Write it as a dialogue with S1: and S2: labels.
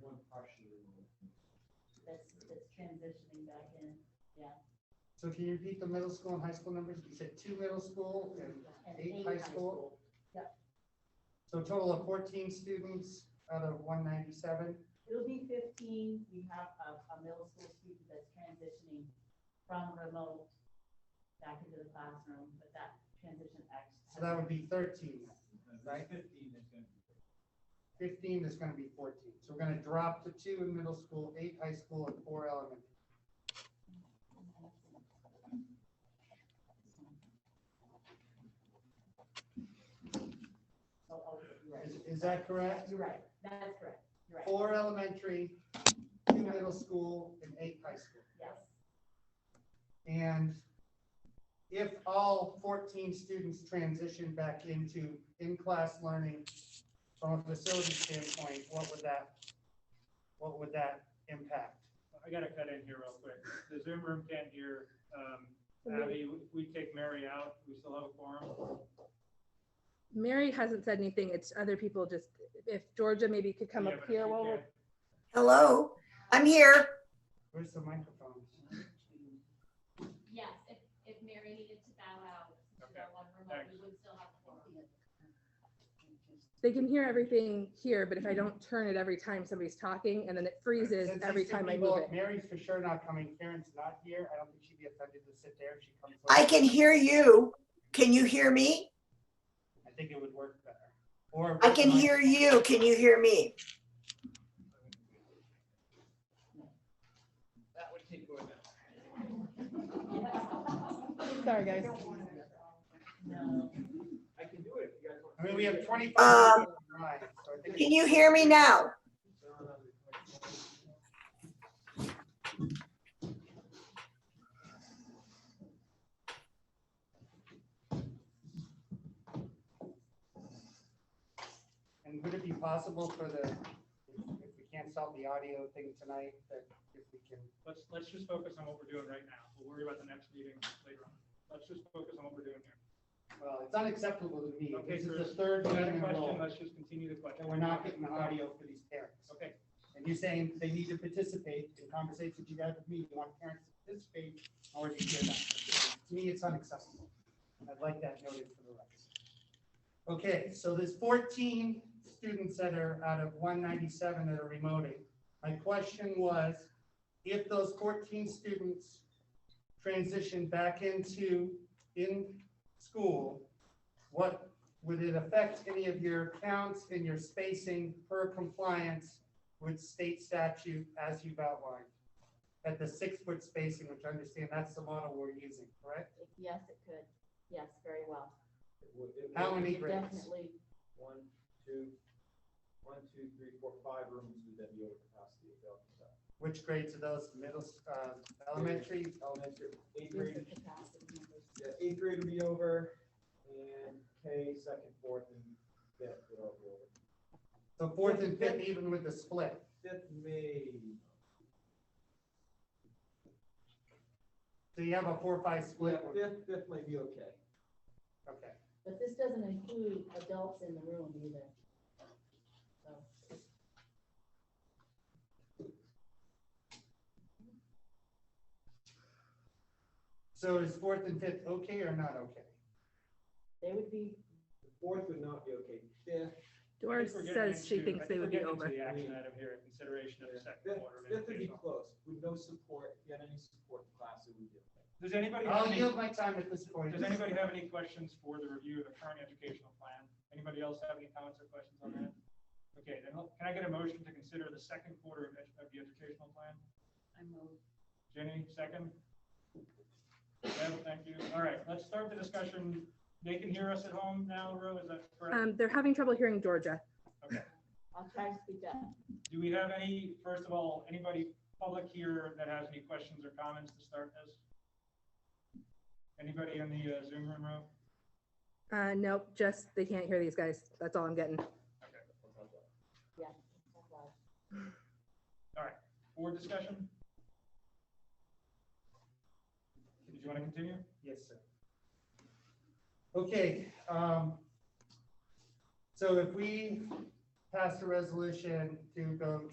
S1: one partially removed.
S2: That's, that's transitioning back in.
S1: So can you repeat the middle school and high school numbers? You said two middle school and
S2: And
S1: eight high school?
S2: Yep.
S1: So a total of fourteen students out of one ninety-seven?
S2: It'll be fifteen, we have a, a middle school student that's transitioning from remote back into the classroom, but that transition acts.
S1: So that would be thirteen. Right.
S3: Fifteen is gonna be.
S1: Fifteen is gonna be fourteen. So we're gonna drop to two in middle school, eight high school, and four elementary.
S2: So, oh, you're right.
S1: Is, is that correct?
S2: You're right, that's correct, you're right,
S1: Four elementary, two middle school, and eight high school.
S2: yes.
S1: And if all fourteen students transition back into in-class learning from a facility standpoint, what would that, what would that impact?
S3: I gotta cut in here real quick. The Zoom room can't hear. Um,
S4: Mary-
S3: Abby, we- we take Mary out. We still have a forum.
S4: Mary hasn't said anything. It's other people just, if Georgia maybe could come up here while we're,
S5: Hello, I'm here.
S1: Where's the microphone?
S6: Yes, if, if Mary needed to bow out, to
S3: Okay,
S6: go on remote,
S3: thanks.
S6: we would still have four.
S4: they can hear everything here, but if I don't turn it every time somebody's talking and then it freezes
S1: Since
S4: every
S1: these two
S4: time I
S1: people-
S4: move it.
S1: Mary's for sure not coming, Karen's not here, I don't think she'd be offended to sit there if she comes.
S5: I
S1: over.
S5: can hear you. Can you hear me?
S1: I think it would work better. Or.
S5: I can hear you. Can you hear me?
S3: That would keep going.
S4: Sorry, guys.
S2: No,
S3: I can do it.
S1: I mean, we have twenty-five.
S5: Um,
S1: people online, so I think
S5: Can you hear me now?
S1: And would it be possible for the, if if we can't solve the audio thing tonight, that if we can,
S3: Let's, let's just focus on what we're doing right now. We'll worry about the next meeting later on. Let's just focus on what we're doing here.
S1: well, it's unacceptable to me.
S3: Okay,
S1: This is the
S3: Bruce,
S1: third
S3: If you
S1: meeting
S3: had a
S1: in a
S3: question,
S1: row
S3: let's just continue the question.
S1: that we're not getting the audio for these parents.
S3: Okay,
S1: And you're saying they need to participate in conversations you have with me, you want parents to participate, or do you hear that? To me, it's unacceptable. I'd like that noted for the record. Okay, so there's fourteen students that are out of one ninety-seven that are remoting. My question was, if those fourteen students transition back into, in school, what, would it affect any of your counts and your spacing per compliance with state statute as you've outlined? At the six-foot spacing, which I understand that's the model we're using, correct?
S2: yes, it could, yes, very well.
S1: How many
S2: It
S1: grades?
S2: Definitely,
S7: One, two, one, two, three, four, five rooms would then be over capacity available.
S1: Which grades are those, middle, uh, elementary?
S7: Elementary, eighth
S2: there's the
S7: grade,
S2: capacity numbers.
S7: yeah, eighth grade would be over, and K, second, fourth, and fifth would all be over.
S1: So fourth and fifth, even with the split?
S7: Fifth may,
S1: So you have a four-five
S7: yeah,
S1: split?
S7: fifth, fifth might be okay.
S1: Okay.
S2: But this doesn't include adults in the room either. So,
S1: So is fourth and fifth okay or not okay?
S2: they would be,
S7: The Fourth would not be okay, fifth,
S3: I
S4: Doris
S3: think we're getting
S4: says she
S3: into-
S4: thinks
S3: I
S4: they
S3: think we're
S4: would be
S3: getting into
S4: over.
S3: The action item here, consideration of the second
S7: fifth,
S3: quarter. of
S7: fifth would be
S3: educational.
S7: close, with no support, if you had any support in class, it would be okay.
S3: Does anybody? have
S1: I'll
S3: any-
S1: yield my time at this point.
S3: Does anybody have any questions for the review of the current educational plan? Anybody else have any comments or questions on that? Okay, then I'll- can I get a motion to consider the second quarter of edu- of the educational plan?
S2: I move.
S3: Jenny, second? Deb, thank you. All right, let's start the discussion. They can hear us at home now, Rue, is that correct?
S4: Um, they're having trouble hearing Georgia.
S2: I'll try to speak up.
S3: Do we have any, first of all, anybody public here that has any questions or comments to start this? Anybody in the uh, Zoom room, Rue?
S4: Uh, nope, just, they can't hear these guys. That's all I'm getting.
S3: Board discussion? Did you want to continue?
S1: Yes, sir. Okay, um, so if we pass a resolution to go